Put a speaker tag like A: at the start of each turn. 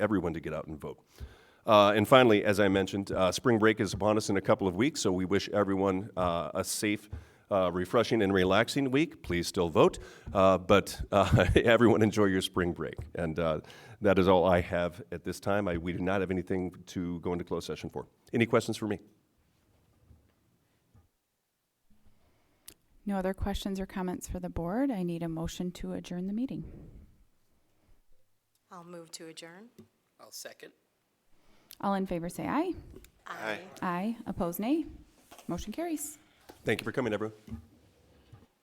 A: everyone to get out and vote. Uh, and finally, as I mentioned, uh, spring break is upon us in a couple of weeks, so we wish everyone uh, a safe, uh, refreshing, and relaxing week. Please still vote, uh, but uh, everyone enjoy your spring break. And uh, that is all I have at this time. I, we do not have anything to go into closed session for. Any questions for me?
B: No other questions or comments for the board. I need a motion to adjourn the meeting.
C: I'll move to adjourn.
D: I'll second.
B: All in favor say aye.
C: Aye.
B: Aye. Opposed nay. Motion carries.
A: Thank you for coming, everyone.